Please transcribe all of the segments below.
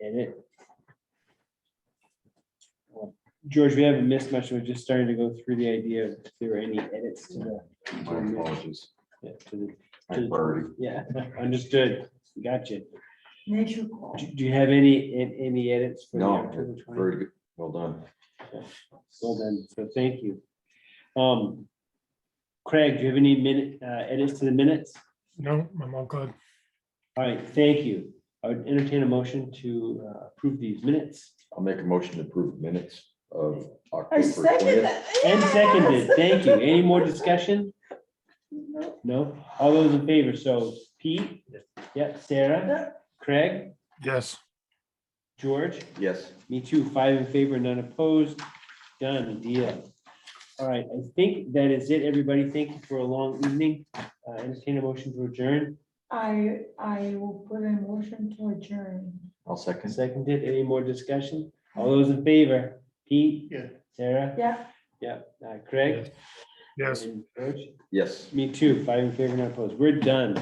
mean, it. George, we haven't missed much. We're just starting to go through the idea of if there are any edits to the, My apologies. yeah, to the, I'm Birdie. yeah, understood. Gotcha. Make your call. Do do you have any, an- any edits? for the No, October 20? Very good. Well done. Well then, so thank you. Um, Craig, do you have any minute, uh, edits to the minutes? No, I'm all good. All right, thank you. I would entertain a motion to uh, approve these minutes. I'll make a motion to approve minutes of I October second twentieth. that. And yes! seconded, thank you. Any more discussion? No, No? All those in favor, so Pete? Yep, Sarah? Craig? Yes, George? Yes, Me too, five in favor, none opposed. Done, deal. All right, I think that is it, everybody. Thank you for a long evening. Uh, Entertain a motion to adjourn. I, I will put a motion to adjourn. I'll second. Seconded, any more discussion? All those in favor? Pete? Yeah. Sarah? Yeah, Yeah. Uh, Craig? yes. And George? Yes. Me too, five in favor, none opposed. We're done.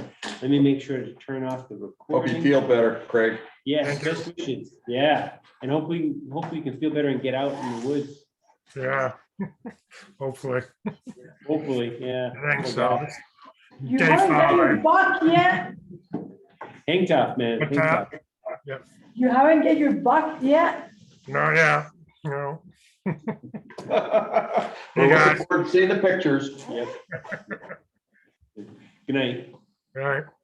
Let me make sure to turn off the Hope you recording. feel better, Craig. Yes, Thank you. best wishes. yeah, and hopefully, hopefully you can feel better and get out in the woods, Yeah, hopefully. hopefully, yeah. I think so. you Dave haven't got your Fowler. buck yet, Hang tough, man. What's hang tough. you haven't get your buck yet, No, yeah, no. We're Hey, guys. looking forward to Seeing the pictures. Yep. Good night. All right.